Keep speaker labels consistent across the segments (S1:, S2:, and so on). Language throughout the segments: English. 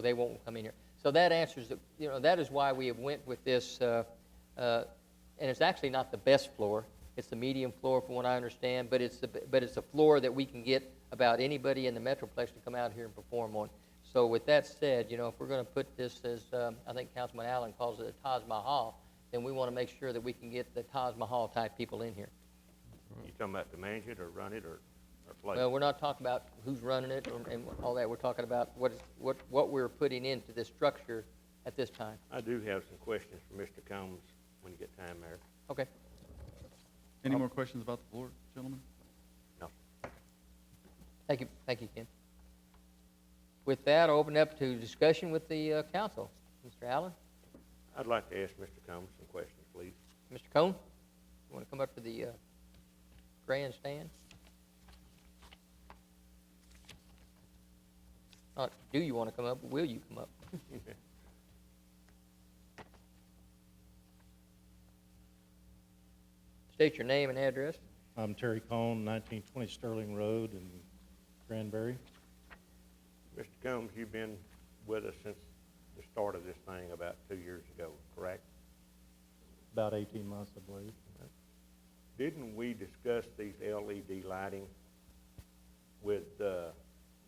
S1: they won't come in here. So that answers, the- you know, that is why we went with this, uh, uh, and it's actually not the best floor. It's the medium floor, from what I understand, but it's, the but it's a floor that we can get about anybody in the Metroplex to come out here and perform on. So with that said, you know, if we're going to put this as, um, I think Councilman Allen calls it a Taj Mahal, then we want to make sure that we can get the Taj Mahal-type people in here.
S2: You talking about to manage it or run it or, or play?
S1: Well, we're not talking about who's running it and and all that. We're talking about what, is- what, what we're putting into this structure at this time.
S2: I do have some questions for Mr. Combs when you get time, Mayor.
S1: Okay.
S3: Any more questions about the floor, gentlemen?
S2: No.
S1: Thank you, thank you, Ken. With that, I'll open up to discussion with the uh, council. Mr. Allen,
S2: I'd like to ask Mr. Combs some questions, please.
S1: Mr. Cone, you want to come up to the uh, grandstand? Not do you want to come up, will you come up? State your name and address.
S4: I'm Terry Cohn, 1920 Sterling Road in Granbury.
S2: Mr. Combs, you've been with us since the start of this thing about two years ago, correct?
S4: About 18 months, I believe.
S2: Didn't we discuss these LED lighting with, uh,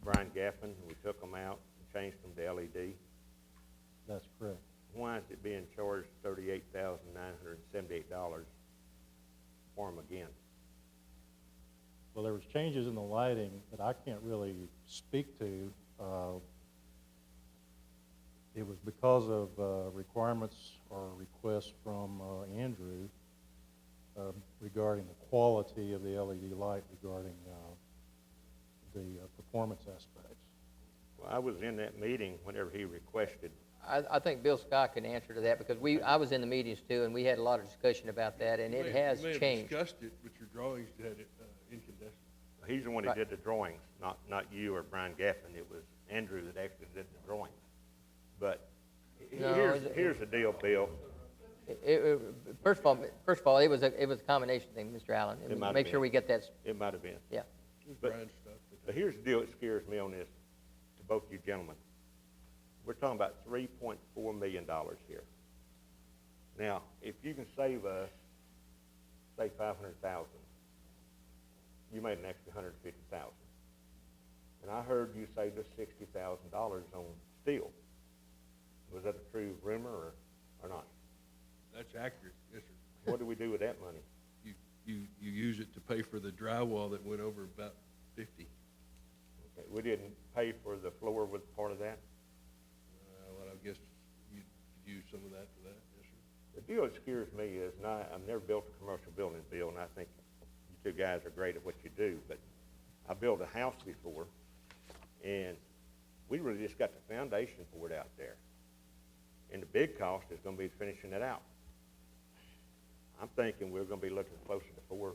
S2: Brian Gaffin? We took them out and changed them to LED.
S4: That's correct.
S2: Why is it being charged thirty-eight thousand nine hundred and seventy-eight dollars for them again?
S4: Well, there was changes in the lighting that I can't really speak to. Uh, It was because of uh, requirements or requests from uh, Andrew um, regarding the quality of the LED light regarding uh, the uh, performance aspects.
S2: Well, I was in that meeting whenever he requested,
S1: I, I think Bill Scott can answer to that because we, I was in the meetings too and we had a lot of discussion about that and
S5: You may-
S1: it has
S5: You may have
S1: changed.
S5: discussed it, but your drawings had it uh, incandescent.
S2: he's the one
S1: Right.
S2: that did the drawings, not, not you or Brian Gaffin, it was Andrew that actually did the drawings. But he-
S1: No,
S2: here's,
S1: it-
S2: here's the deal, Bill,
S1: It- it- First of all, first of all, it was a, it was a combination thing, Mr. Allen.
S2: It might have
S1: Make sure
S2: been.
S1: we get that, s-
S2: it might have been.
S1: yeah.
S5: It was
S2: But-
S5: Brian stuff. but-
S2: But here's the deal that scares me on this, to both you gentlemen. We're talking about three point four million dollars here. Now, if you can save us, say five hundred thousand, you made an extra hundred and fifty thousand. And I heard you saved us sixty thousand dollars on steel. Was that a true rumor or, or not?
S5: That's accurate, yes, sir.
S2: What do we do with that money?
S5: You, you, you use it to pay for the drywall that went over about fifty.
S2: Okay, We didn't pay for the floor with part of that?
S5: Uh, Well, I guess you could use some of that for that, yes, sir.
S2: The deal that scares me is, and I, I've never built a commercial building, Bill, and I think you two guys are great at what you do, but I built a house before, and we really just got the foundation for it out there. And the big cost is gonna be finishing it out. I'm thinking we're gonna be looking closer to four,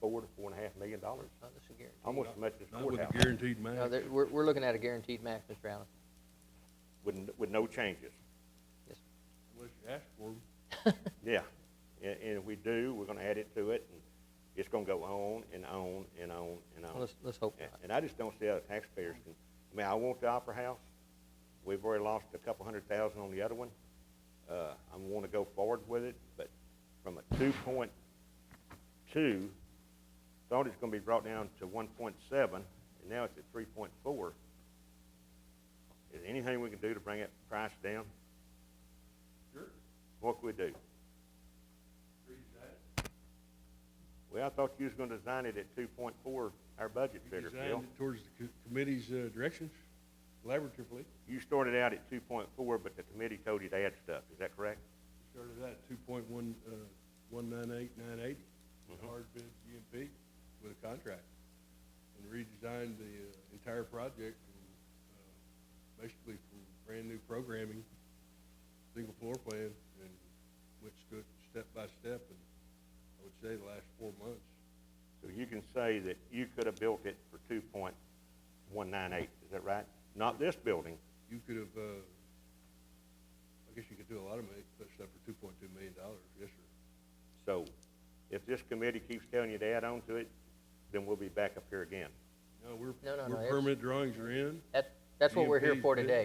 S2: four to four and a half million dollars,
S1: Oh, this is guaranteed.
S2: almost as much as
S5: Not with a
S2: courthouse,
S5: guaranteed
S1: No,
S5: max.
S1: there- we're, we're looking at a guaranteed max, Mr. Allen.
S2: with, n- with no changes.
S1: Yes.
S5: Unless you ask for them.
S2: Yeah, and, and if we do, we're gonna add it to it, and it's gonna go on and on and on and on.
S1: Let's- let's hope
S2: And-
S1: not.
S2: And I just don't see how taxpayers can, I mean, I want the Opera House, we've already lost a couple hundred thousand on the other one. Uh, I wanna go forward with it, but from a two point two, thought it's gonna be brought down to one point seven, and now it's at three point four. Is there anything we can do to bring that price down?
S5: Sure,
S2: What can we do?
S5: sure you can.
S2: Well, I thought you was gonna design it at two point four, our budget
S5: You
S2: figure, Phil.
S5: designed it towards the co- committee's uh, directions, collaboratively.
S2: You started out at two point four, but the committee told you to add stuff, is that correct?
S5: Started out at two point one, uh, one nine eight, nine eighty, hard bid GMP with a contract. And redesigned the uh, entire project, from, uh, basically from brand new programming, single floor plan, and went stood step by step, and I would say the last four months.
S2: So you can say that you could have built it for two point one nine eight, is that right? Not this building,
S5: You could have, uh, I guess you could do a lot of ma- stuff for two point two million dollars, yes, sir.
S2: so if this committee keeps telling you to add on to it, then we'll be back up here again.
S5: No, we're,
S1: No, no, no,
S5: we're
S1: it's-
S5: permanent drawings are in.
S1: That, that's what we're here
S5: GMP 's
S1: for
S5: good.
S1: today.